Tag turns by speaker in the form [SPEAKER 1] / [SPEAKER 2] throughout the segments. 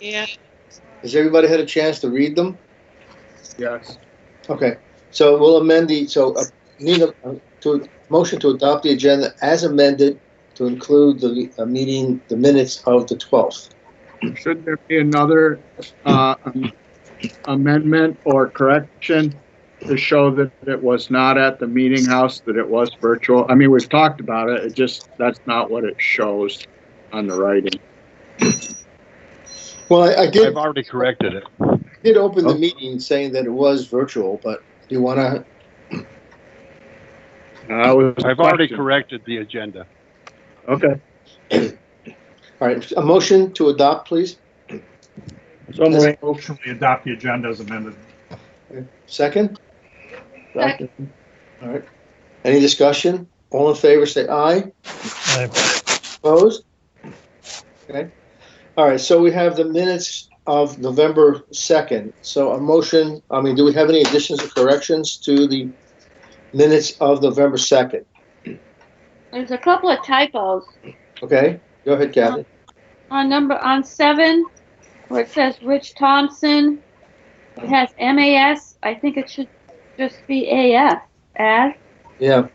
[SPEAKER 1] Yeah.
[SPEAKER 2] Has everybody had a chance to read them?
[SPEAKER 3] Yes.
[SPEAKER 2] Okay, so we'll amend the, so uh, need a, uh, to, motion to adopt the agenda as amended to include the uh, meeting, the minutes of the 12th.
[SPEAKER 3] Should there be another uh, am- amendment or correction to show that it was not at the meeting house, that it was virtual? I mean, we've talked about it, it just, that's not what it shows on the writing.
[SPEAKER 2] Well, I- I did,
[SPEAKER 4] I've already corrected it.
[SPEAKER 2] did open the meeting saying that it was virtual, but do you want to,
[SPEAKER 3] I was.
[SPEAKER 4] I've already corrected the agenda.
[SPEAKER 3] Okay.
[SPEAKER 2] all right, a motion to adopt, please?
[SPEAKER 3] So moved.
[SPEAKER 5] Motion we adopt the agenda as amended.
[SPEAKER 2] Second?
[SPEAKER 1] Second.
[SPEAKER 2] All right. Any discussion? All in favor, say aye. Opposed? Okay. All right, so we have the minutes of November 2nd. So a motion, I mean, do we have any additions or corrections to the minutes of November 2nd?
[SPEAKER 1] There's a couple of typos.
[SPEAKER 2] Okay, go ahead, Kathy.
[SPEAKER 1] On number, on seven, where it says Rich Thompson, it has MAS. I think it should just be AS, as.
[SPEAKER 2] Yeah,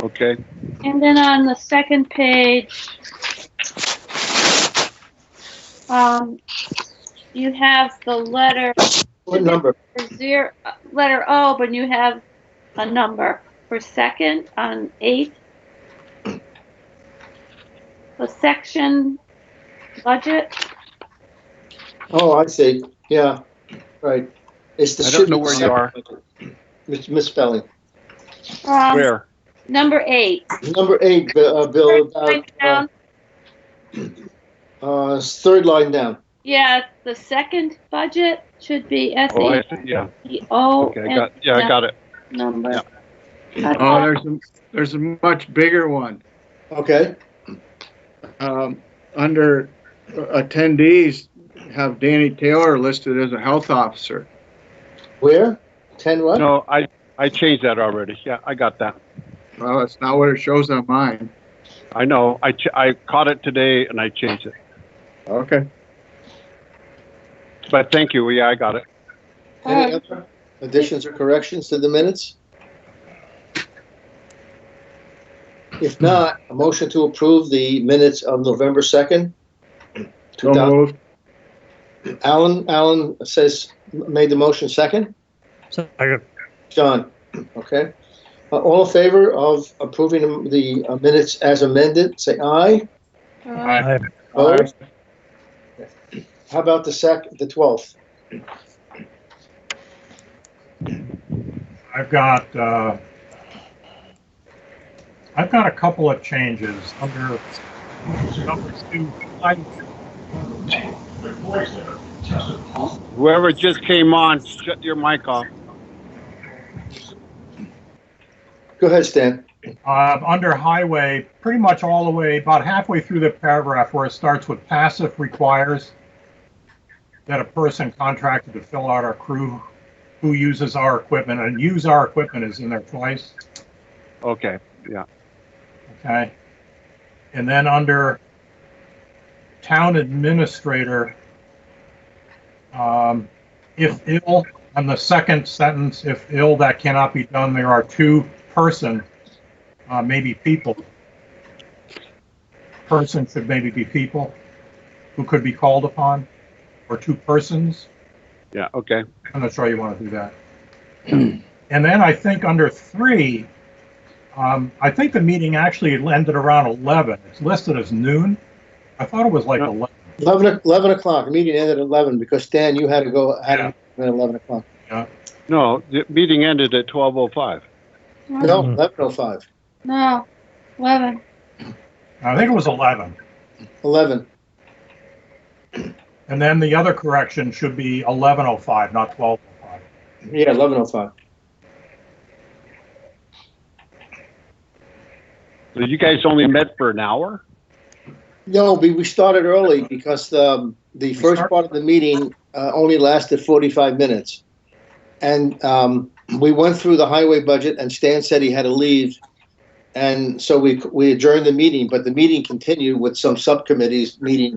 [SPEAKER 4] Okay,
[SPEAKER 1] And then on the second page, um, you have the letter
[SPEAKER 2] what number?
[SPEAKER 1] zero, letter O, but you have a number for second on eight. The section budget,
[SPEAKER 2] Oh, I see, yeah, right. It's the.
[SPEAKER 4] I don't know where you are.
[SPEAKER 2] Mis- Misspelling.
[SPEAKER 1] um,
[SPEAKER 4] where?
[SPEAKER 1] number eight.
[SPEAKER 2] Number eight, Bi- uh, Bill,
[SPEAKER 1] First line
[SPEAKER 2] about, uh,
[SPEAKER 1] down,
[SPEAKER 2] uh, third line down.
[SPEAKER 1] Yeah, the second budget should be S
[SPEAKER 4] Oh, I
[SPEAKER 1] A
[SPEAKER 4] see, yeah,
[SPEAKER 1] P O
[SPEAKER 4] okay, I got, yeah, I got it.
[SPEAKER 1] number.
[SPEAKER 3] Oh,
[SPEAKER 1] Uh,
[SPEAKER 3] there's, a- there's a much bigger one.
[SPEAKER 2] Okay,
[SPEAKER 3] um, under uh, attendees, have Danny Taylor listed as a health officer.
[SPEAKER 2] where? Ten what?
[SPEAKER 4] No, I, I changed that already. Yeah, I got that.
[SPEAKER 3] Well, that's not what it shows on mine.
[SPEAKER 4] I know, I, ch- I caught it today and I changed it.
[SPEAKER 3] Okay.
[SPEAKER 4] But thank you, yeah, I got it.
[SPEAKER 2] Any
[SPEAKER 1] Uh,
[SPEAKER 2] other additions or corrections to the minutes? If not, a motion to approve the minutes of November 2nd.
[SPEAKER 3] So moved.
[SPEAKER 2] Alan, Alan says, made the motion second?
[SPEAKER 5] Second.
[SPEAKER 2] John, okay. Uh, All in favor of approving the uh, minutes as amended, say aye.
[SPEAKER 1] uh,
[SPEAKER 2] Opposed? How about the sec, the 12th?
[SPEAKER 5] I've got, uh, I've got a couple of changes under number two. line-
[SPEAKER 4] Whoever just came on, shut your mic off.
[SPEAKER 2] Go ahead, Stan.
[SPEAKER 5] Uh, under highway, pretty much all the way, about halfway through the paragraph where it starts with passive requires that a person contracted to fill out our crew who uses our equipment and use our equipment is in there twice.
[SPEAKER 4] Okay,
[SPEAKER 5] Okay. And then under town administrator, um, if ill, on the second sentence, if ill, that cannot be done, there are two person, uh, maybe people. Person should maybe be people who could be called upon, or two persons.
[SPEAKER 4] yeah, okay.
[SPEAKER 5] I'm not sure you want to do that. And then I think under three, um, I think the meeting actually ended around 11. It's listed as noon. I thought it was like
[SPEAKER 4] Yeah.
[SPEAKER 5] 11.
[SPEAKER 2] 11, o- 11 o'clock, meeting ended at 11 because Stan, you had to go, had to at 11 o'clock.
[SPEAKER 4] No, the meeting ended at twelve oh five.
[SPEAKER 1] Mm-hmm.
[SPEAKER 2] No, 11:05.
[SPEAKER 1] No, eleven.
[SPEAKER 5] I think it was 11.
[SPEAKER 2] 11.
[SPEAKER 5] And then the other correction should be 11:05, not 12:05.
[SPEAKER 2] Yeah, 11:05.
[SPEAKER 4] You guys only met for an hour?
[SPEAKER 2] No, we, we started early because um, the first
[SPEAKER 5] start-
[SPEAKER 2] part of the meeting uh, only lasted 45 minutes. And um, we went through the highway budget and Stan said he had to leave. And so we, we adjourned the meeting, but the meeting continued with some subcommittees meeting